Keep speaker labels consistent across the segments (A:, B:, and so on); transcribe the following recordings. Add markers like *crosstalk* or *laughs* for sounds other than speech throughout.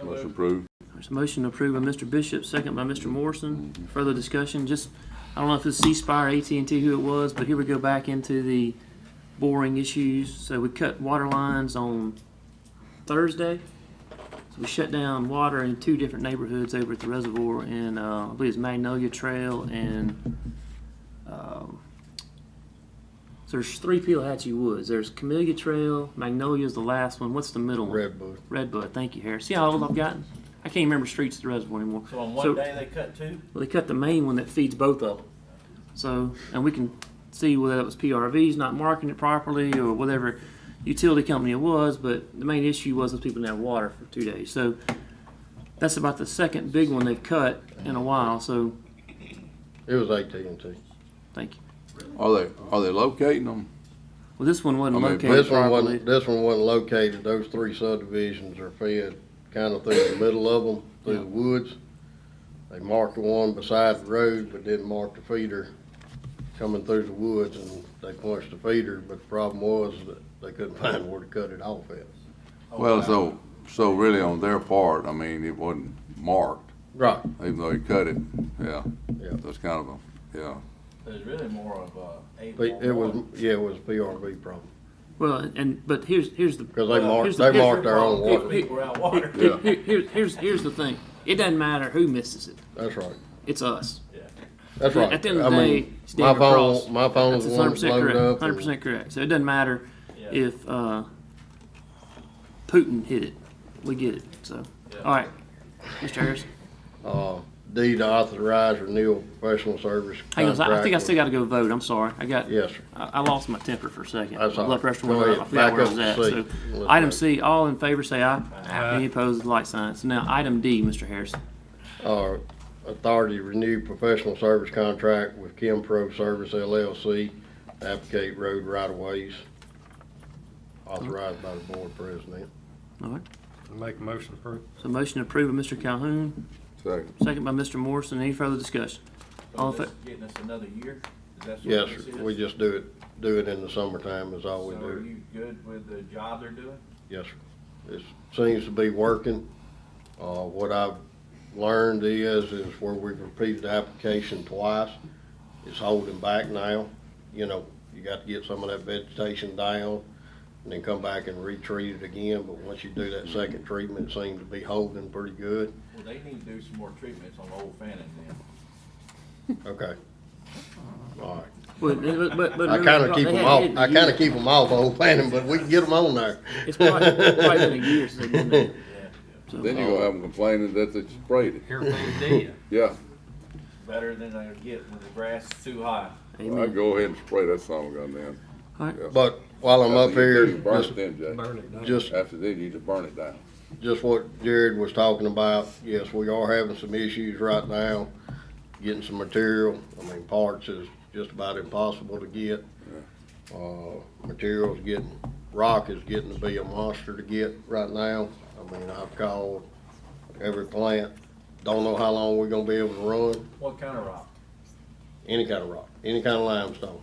A: to approve.
B: There's a motion approved by Mr. Bishop, second by Mr. Morrison. Further discussion, just, I don't know if it's C Spire, AT&T, who it was, but here we go back into the boring issues. So we cut water lines on Thursday. So we shut down water in two different neighborhoods over at the reservoir in, uh, I believe it's Magnolia Trail and, um, so there's three Peleachi Woods. There's Camellia Trail, Magnolia's the last one. What's the middle one?
C: Redbud.
B: Redbud, thank you, Harris. See how old I've gotten? I can't remember streets at the reservoir anymore.
D: So on one
B: So-
D: day, they cut two?
B: Well, they cut the main one that feeds both of them. So, and we can see whether that was PRVs not marking it properly or whatever utility company it was, but the main issue was those people didn't have water for two days. So that's about the second big one they've cut in a while, so
C: It was AT&T.
B: thank you.
A: Are they, are they locating them?
B: Well, this one wasn't
A: I mean,
B: located
C: This one
B: properly.
C: wasn't, this one wasn't located, those three subdivisions are fed kind of through the middle of them, through the woods. They marked the one beside the road, but didn't mark the feeder coming through the woods, and they punched the feeder, but the problem was that they couldn't *laughs* find where to cut it off at. Oh,
A: Well, so, so really on their part, I mean, it wasn't marked,
C: Right.
A: even though he cut it, yeah.
C: Yeah.
A: That's kind of a, yeah.
D: It's really more of a eight.
C: They- It was,
D: one.
C: yeah, it was a PRV problem,
B: Well, and, but here's, here's the.
C: because they
B: here's
C: marked,
B: the
C: they marked
B: picture.
C: their own
B: Here-
C: water.
B: here-
D: People were
C: *laughs*
D: out water.
B: here- here- here- Here's, here's the thing. It doesn't matter who misses it.
C: That's right.
B: It's us.
C: That's right.
B: At the end of
C: I
B: the
C: mean,
B: day, it's
C: my
B: David
C: phone-
B: Cross.
C: My phone was
B: That's hundred
C: the one that
B: percent
C: loaded
B: correct.
C: up.
B: Hundred
C: and-
B: percent correct. So it doesn't matter
D: Yeah.
B: if uh, Putin hit it. We get it. So
D: Yeah.
B: all right, Mr. Harris.
C: Uh, D to authorize renewal professional service.
B: Hang on. I I think I
C: contract
B: still got to go vote. I'm sorry. I got.
C: with- Yes, sir.
B: I, I lost my temper for a second.
C: That's all
B: Blood
C: right.
B: pressure
C: Go
B: went up. I
C: ahead.
B: forgot
C: Back
B: where I
C: up
B: was
C: to
B: at.
C: C.
B: So
C: Let's
B: item
C: vote.
B: C. All in favor, say aye. Any opposed? Like signs. So now item D, Mr. Harris.
C: Uh, authority to renew professional service contract with Kim Pro Service LLC, applicate road right of ways. Authorized by the board president.
B: All right.
E: Make a motion to approve.
B: So motion approved by Mr. Calhoun,
A: Second.
B: second by Mr. Morrison. Any further discussion? All
D: So
B: in fa-
D: this getting us another year? Is that what
C: Yes,
D: this
C: sir.
D: is?
C: We just do it, do it in the summertime is all
D: So
C: we
D: are
C: do.
D: you good with the job they're doing?
C: Yes, sir. It seems to be working. Uh, what I've learned is, is where we've repeated the application twice, it's holding back now. You know, you got to get some of that vegetation down and then come back and retreat it again, but once you do that second treatment, it seems to be holding pretty good.
D: Well, they need to do some more treatments on Old Fannin then.
C: Okay. All right.
B: But, but, but, but
C: I kind of keep
B: they
C: them
B: hadn't
C: off,
B: hit in a
C: I kind
B: year.
C: of keep them off old planning, but we can get them on there.
B: It's probably, probably been a year since they've been
C: *laughs*
B: there.
D: Yeah,
A: Then you're gonna have them complaining that they sprayed it,
E: Everything did.
A: yeah.
D: better than they get when the grass is too high.
A: I go ahead and spray that song goddamn.
C: But while I'm up here,
A: Burn
C: just,
A: it then, Jay.
E: Burn it down.
C: just
A: After that, you just burn it down.
C: just what Jared was talking about, yes, we are having some issues right now, getting some material. I mean, parts is just about impossible to get. Uh, materials getting, rock is getting to be a monster to get right now. I mean, I've called every plant, don't know how long we're gonna be able to run,
D: What kind of rock?
C: any kind of rock, any kind of limestone.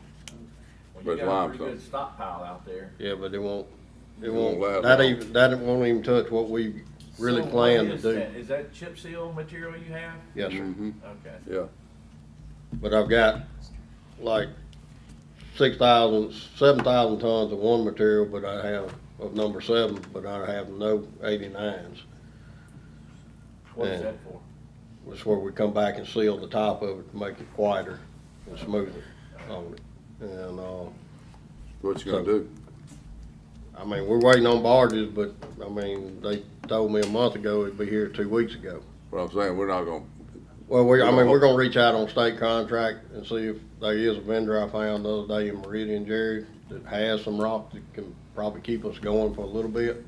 D: Well,
A: But
D: you got a pretty
A: limestone.
D: good stockpile out there.
C: Yeah, but it won't, it
A: It won't last
C: won't, that
A: long.
C: even, that won't even touch what we really
D: So what
C: plan to
D: is
C: do.
D: that? Is that chip seal material you have?
C: Yes, sir.
A: Mhm.
D: Okay.
A: Yeah,
C: But I've got like six thousand, seven thousand tons of one material, but I have, of number seven, but I have no eighty-nines.
D: What is
C: Yeah.
D: that for?
C: That's where we come back and seal the top of it to make it quieter and smoother on it. And, uh,
A: what you gonna do?
C: I mean, we're waiting on barges, but, I mean, they told me a month ago it'd be here two weeks ago.
A: What I'm saying, we're not gonna,
C: Well, we, I mean,
F: *laughs*
C: we're gonna reach out on state contract and see if there is a vendor I found the other day in Meridian, Jerry, that has some rock that can probably keep us going for a little bit.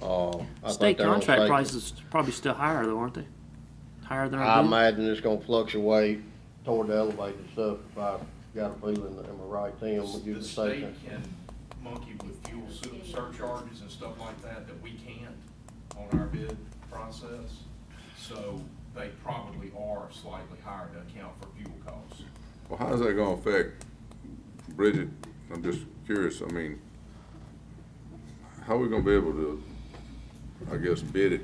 C: Uh, I think
B: State
C: they're on
B: contract
C: state-
B: prices probably still higher though, aren't they? Higher than
C: I
B: our bid?
C: imagine it's gonna fluctuate toward the elevated stuff, if I got a feeling, that am I right, Tim, would you
F: The
C: say
F: state
C: that?
F: can monkey with fuel su- surcharges and stuff like that that we can't on our bid process. So they probably are slightly higher to account for fuel costs.
A: well, how's that gonna affect Bridget? I'm just curious, I mean, how we gonna be able to, I guess, bid it